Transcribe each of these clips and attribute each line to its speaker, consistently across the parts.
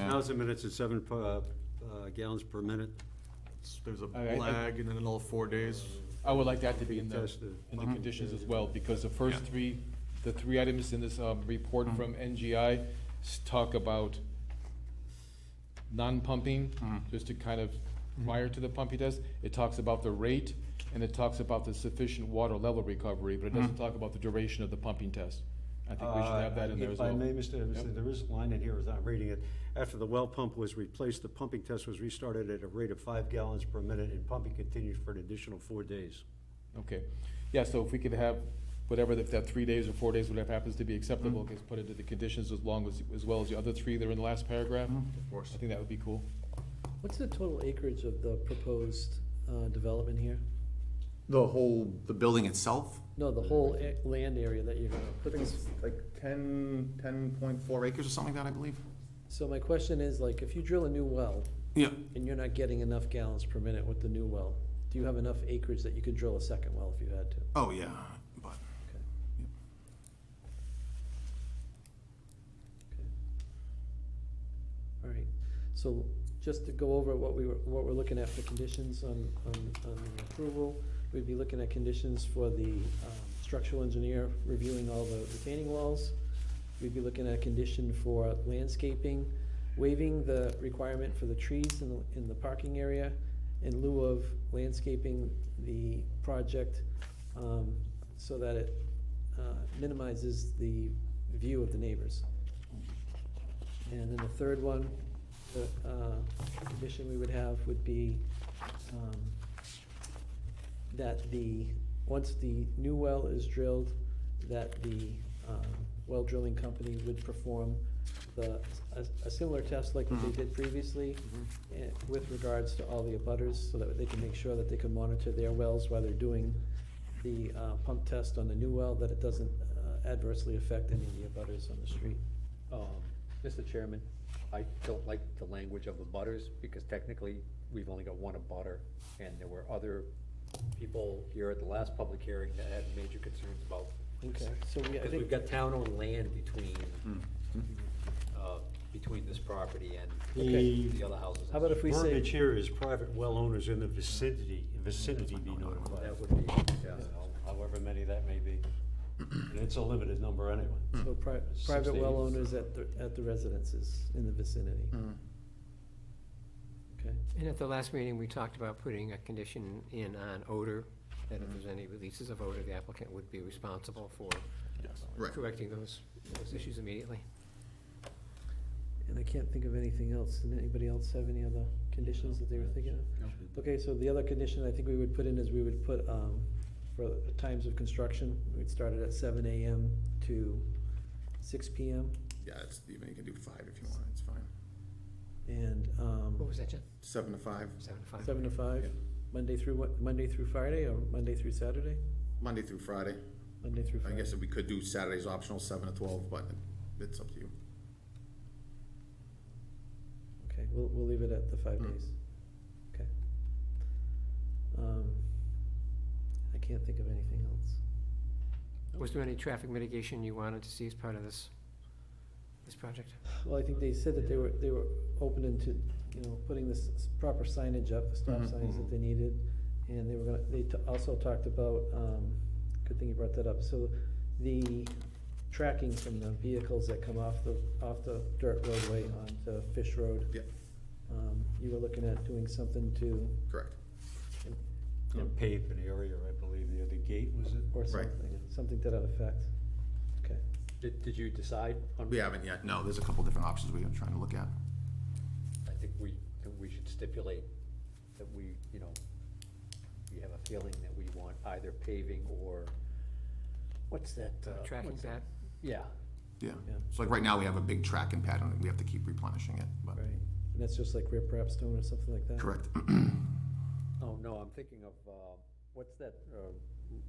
Speaker 1: 1,000 minutes at seven uh, uh, gallons per minute.
Speaker 2: It's- There's a
Speaker 3: Okay, I-
Speaker 2: lag and then another four days.
Speaker 3: I would like that to be in the,
Speaker 1: Contested.
Speaker 3: in the conditions as well, because the first three, the three items in this, um, report from NGI s- talk about non-pumping, just to kind of, prior to the pumping test, it talks about the rate, and it talks about the sufficient water level recovery, but it doesn't talk about the duration of the pumping test. I think we should have that in there as well.
Speaker 1: Uh, If I may, Mr. Anderson,
Speaker 3: Yep.
Speaker 1: there is a line in here, as I'm reading it, after the well pump was replaced, the pumping test was restarted at a rate of five gallons per minute, and pumping continued for an additional four days.
Speaker 3: Okay, yeah, so if we could have, whatever, if that three days or four days, whatever happens to be acceptable, gets put into the conditions as long as, as well as the other three that are in the last paragraph. Of
Speaker 2: course.
Speaker 3: I think that would be cool.
Speaker 4: What's the total acreage of the proposed uh, development here?
Speaker 5: The whole, the building itself?
Speaker 4: No, the whole a- land area that you're gonna
Speaker 5: I
Speaker 4: put
Speaker 5: think
Speaker 4: this.
Speaker 5: it's like ten, ten point four acres or something like that, I believe.
Speaker 4: So my question is, like, if you drill a new well
Speaker 5: Yeah.
Speaker 4: and you're not getting enough gallons per minute with the new well, do you have enough acreage that you could drill a second well if you had to?
Speaker 5: Oh, yeah, but.
Speaker 4: All right, so just to go over what we were, what we're looking at for conditions on, on, on the approval, we'd be looking at conditions for the, um, structural engineer reviewing all the retaining walls. We'd be looking at a condition for landscaping, waiving the requirement for the trees in the, in the parking area in lieu of landscaping the project, um, so that it, uh, minimizes the view of the neighbors. And then the third one, the uh, condition we would have would be um, that the, once the new well is drilled, that the um, well drilling company would perform the, a- a similar test like what they did previously eh, with regards to all the abutters, so that they can make sure that they can monitor their wells while they're doing the uh, pump test on the new well, that it doesn't uh, adversely affect any of the abutters on the street.
Speaker 6: Um, Mr. Chairman, I don't like the language of the butters, because technically, we've only got one abutter, and there were other people here at the last public hearing that had major concerns about.
Speaker 4: Okay, so we, I
Speaker 6: Because
Speaker 4: think.
Speaker 6: we've got town-owned land between, uh, between this property and
Speaker 4: Okay.
Speaker 6: the other houses.
Speaker 4: How about if we
Speaker 1: Verbiage
Speaker 4: say,
Speaker 1: here is private well owners in the vicinity, vicinity be notified,
Speaker 6: That would be, yeah,
Speaker 1: however many that may be. And it's a limited number anyway.
Speaker 4: so pri-
Speaker 6: Hmm.
Speaker 1: Six
Speaker 4: private well
Speaker 1: days.
Speaker 4: owners at the, at the residences in the vicinity?
Speaker 5: Hmm.
Speaker 4: Okay,
Speaker 7: And at the last meeting, we talked about putting a condition in on odor, that if there's any releases of odor, the applicant would be responsible for
Speaker 5: Right.
Speaker 7: correcting those, those issues immediately.
Speaker 4: and I can't think of anything else. Did anybody else have any other conditions that they were thinking of? Okay, so the other condition I think we would put in is we would put, um, for the times of construction, we'd start it at seven AM to six PM.
Speaker 5: Yeah, it's, even you can do five if you want, it's fine.
Speaker 4: And,
Speaker 7: What
Speaker 4: um,
Speaker 7: was that, John?
Speaker 5: Seven to five,
Speaker 7: Seven to five?
Speaker 4: seven to five,
Speaker 5: Yeah.
Speaker 4: Monday through what, Monday through Friday or Monday through Saturday?
Speaker 5: Monday through Friday.
Speaker 4: Monday through
Speaker 5: I
Speaker 4: Friday.
Speaker 5: guess we could do Saturdays optional, seven to twelve, but it's up to you.
Speaker 4: Okay, we'll, we'll leave it at the five
Speaker 5: Mm.
Speaker 4: days. Okay. Um, I can't think of anything else.
Speaker 7: Was there any traffic mitigation you wanted to see as part of this, this project?
Speaker 4: Well, I think they said that they were, they were open into, you know, putting this s- proper signage up, the stop
Speaker 5: Mhm,
Speaker 4: signs that
Speaker 5: mhm.
Speaker 4: they needed. And they were gonna, they t- also talked about, um, good thing you brought that up, so the tracking from the vehicles that come off the, off the dirt roadway onto Fish Road.
Speaker 5: Yeah.
Speaker 4: Um, you were looking at doing something to,
Speaker 5: Correct.
Speaker 1: And paved an area, I believe, the other gate, was it?
Speaker 4: or
Speaker 5: Right.
Speaker 4: something, something to that effect. Okay.
Speaker 6: did, did you decide on?
Speaker 5: We haven't yet, no, there's a couple different options we are trying to look at.
Speaker 6: I think we, that we should stipulate that we, you know, we have a feeling that we want either paving or, what's that? uh,
Speaker 7: Tracking
Speaker 6: what's
Speaker 7: that?
Speaker 6: that? Yeah,
Speaker 5: Yeah,
Speaker 4: Yeah.
Speaker 5: so like right now, we have a big tracking pattern, and we have to keep replenishing it, but,
Speaker 4: Right, and that's just like riprap stone or something like that?
Speaker 5: correct.
Speaker 6: oh, no, I'm thinking of, uh, what's that uh,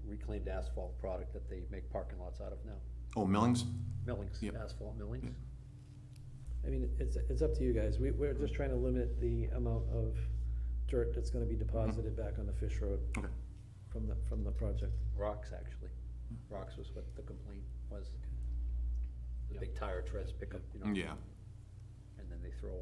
Speaker 6: reclaimed asphalt product that they make parking lots out of now?
Speaker 5: Oh, Millings?
Speaker 6: Millings,
Speaker 5: Yep.
Speaker 6: asphalt millings?
Speaker 4: I mean, it's, it's up to you guys, we, we're just trying to limit the amount of dirt that's gonna be deposited back on the Fish Road
Speaker 5: Mm-hmm. Okay.
Speaker 4: from the, from the project.
Speaker 6: Rocks, actually. Rocks was what the complaint was. The big tire treads pick up, you know,
Speaker 5: Yeah.
Speaker 6: and then they throw